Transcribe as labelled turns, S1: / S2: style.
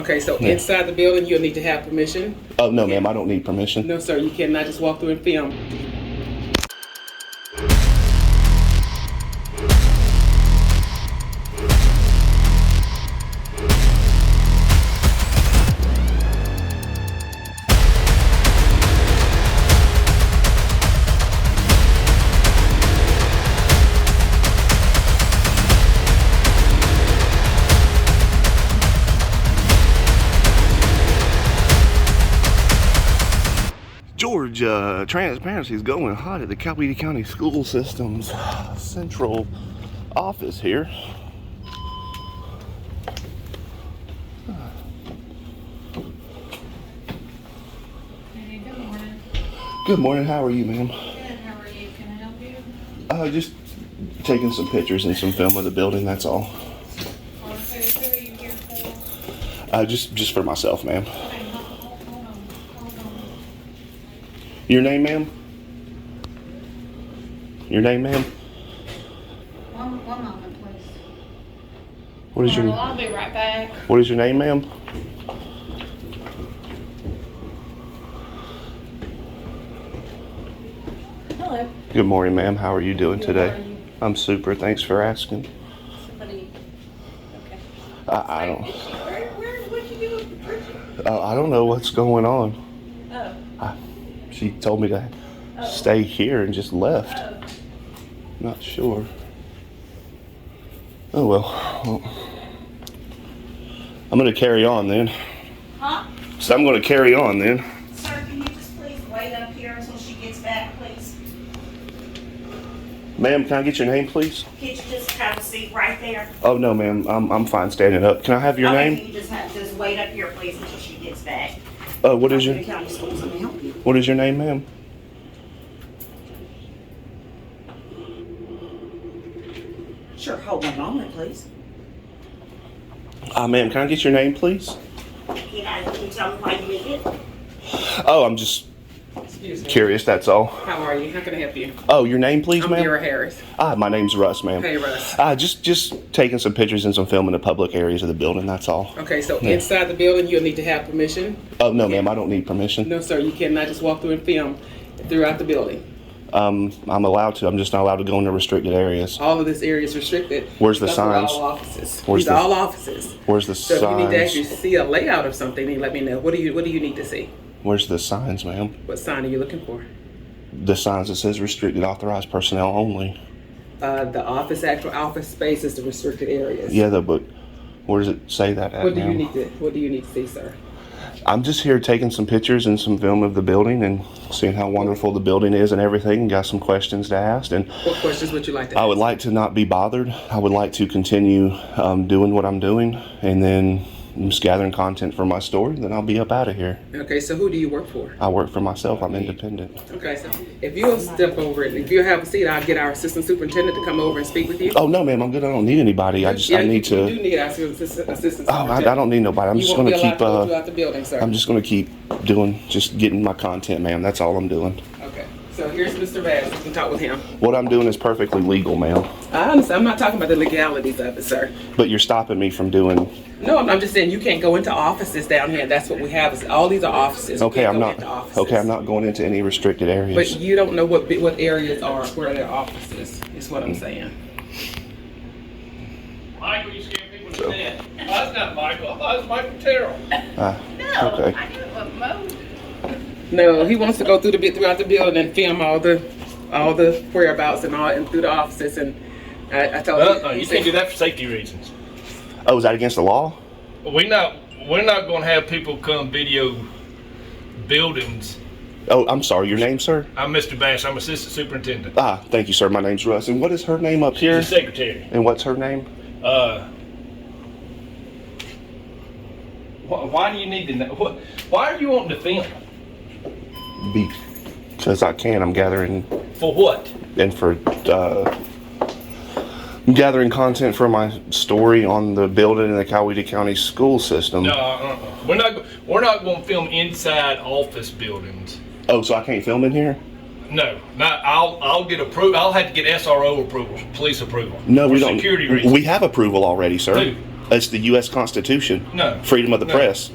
S1: Okay, so
S2: Yeah.
S1: inside the building, you'll need to have permission.
S2: Oh, no, ma'am, I don't need permission.
S1: No, sir, you cannot just walk through and film.
S2: Georgia transparency is going hot at the Coweta County School System's central office here.
S3: Hey, good morning.
S2: Good morning. How are you, ma'am?
S3: Good, how are you? Can I help you?
S2: Uh, just taking some pictures and some film of the building. That's all.
S3: Or who, who are you here for?
S2: Uh, just just for myself, ma'am.
S3: Hey, hold, hold- hold on, hold on.
S2: Your name, ma'am. Your name, ma'am.
S3: One, one moment, please.
S2: What is your
S3: Well, I'll be right back.
S2: What is your name, ma'am?
S3: Hello.
S2: Good morning, ma'am. How are you doing
S3: Good
S2: today?
S3: morning.
S2: I'm super. Thanks for asking.
S3: Somebody, okay.
S2: I, I don't.
S3: Where, where, what'd you do? Where'd you-
S2: Uh, I don't know what's going on.
S3: Oh,
S2: She told me to
S3: Oh.
S2: stay here and just left.
S3: oh.
S2: Not sure. Oh well. Well, I'm gonna carry on then.
S4: Huh?
S2: So I'm gonna carry on then.
S4: Sir, can you just please wait up here until she gets back, please?
S2: Ma'am, can I get your name, please?
S4: Could you just have a seat right there?
S2: Oh no, ma'am. I'm I'm fine standing up. Can I have your
S4: Okay,
S2: name?
S4: Can you just have, just wait up here, please, until she gets back?
S2: Uh, what is your
S4: The county schools, I'm gonna help you.
S2: What is your name, ma'am?
S4: Sure, hold one moment, please.
S2: Ah, ma'am. Can I get your name, please?
S4: Can I, can you tell me why you did it?
S2: Oh, I'm just
S1: Excuse me.
S2: curious. That's all.
S1: How are you? How can I help you?
S2: Oh, your name, please,
S1: I'm
S2: ma'am.
S1: Vera Harris.
S2: Ah, my name's Russ, ma'am.
S1: Hey, Russ.
S2: Ah, just just taking some pictures and some film in the public areas of the building. That's all.
S1: Okay, so
S2: Yeah.
S1: inside the building, you'll need to have permission.
S2: Oh no, ma'am. I don't need permission.
S1: No, sir, you cannot just walk through and film throughout the building.
S2: Um, I'm allowed to. I'm just not allowed to go into restricted areas.
S1: All of this area is restricted.
S2: Where's the
S1: Those are
S2: signs?
S1: All offices.
S2: Where's
S1: These
S2: the-
S1: are all offices.
S2: Where's the
S1: So if you need to actually
S2: signs?
S1: see a layout of something, then let me know. What do you What do you need to see?
S2: Where's the signs, ma'am?
S1: What sign are you looking for?
S2: The signs that says restricted authorized personnel only.
S1: Uh, the office, actual office space is the restricted areas.
S2: Yeah, though, but where does it say that at,
S1: What do you
S2: ma'am?
S1: need to What do you need to see, sir?
S2: I'm just here taking some pictures and some film of the building and seeing how wonderful the building is and everything. Got some questions to ask, and
S1: What questions would you like to?
S2: I
S1: ask?
S2: would like to not be bothered. I would like to continue um, doing what I'm doing, and then just gathering content for my story. Then I'll be up out of here.
S1: Okay, so who do you work for?
S2: I work for myself. I'm independent.
S1: Okay, so if you'll step over and if you have a seat, I'll get our assistant superintendent to come over and speak with you.
S2: Oh no, ma'am, I'm good. I don't need anybody. I just
S1: Yeah,
S2: I need
S1: you,
S2: to.
S1: You do need our assistant. assistant
S2: Oh, I, I don't need nobody. I'm
S1: You
S2: just
S1: won't
S2: gonna
S1: be allowed
S2: keep.
S1: to go
S2: Uh,
S1: throughout the building, sir.
S2: I'm just gonna keep doing, just getting my content, ma'am. That's all I'm doing.
S1: Okay, so here's Mr. Bass. You can talk with him.
S2: What I'm doing is perfectly legal, ma'am.
S1: I understand. I'm not talking about the legalities of it, sir.
S2: But you're stopping me from doing.
S1: No, I'm, I'm just saying you can't go into offices down here. That's what we have. Is all these are offices. You
S2: Okay,
S1: can't go
S2: I'm not.
S1: into offices.
S2: Okay, I'm not going into any restricted areas.
S1: But you don't know what bi- what areas are where their offices is what I'm saying.
S5: Michael, you scared people to death. Oh, That's not Michael. I thought it was Michael Terrell.
S2: Ah, okay.
S1: No, he wants to go through the bit throughout the building and film all the all the whereabouts and all and through the offices and I, I told him
S5: Uh-uh, you
S1: said-
S5: can't do that for safety reasons.
S2: Oh, is that against the law?
S5: We're not, we're not gonna have people come video buildings.
S2: Oh, I'm sorry. Your name, sir?
S5: I'm Mr. Bass, I'm Assistant Superintendent.
S2: Ah, thank you, sir. My name's Russ. And what is her name up here?
S5: The Secretary.
S2: And what's her name?
S5: Uh, why, why do you need to know, what, why are you wanting to film?
S2: Because I can. I'm gathering
S5: For what?
S2: and for uh, I'm gathering content for my story on the building in the Coweta County school system.
S5: No, uh-uh. we're not, go- we're not gonna film inside office buildings.
S2: Oh, so I can't film in here?
S5: No, not, I'll, I'll get approval, I'll have to get SRO approval, police approval.
S2: No, we
S5: For
S2: don't.
S5: Security reasons.
S2: We have approval already, sir.
S5: Who?
S2: It's the U.S. Constitution.
S5: No.
S2: Freedom of the
S5: No.
S2: press.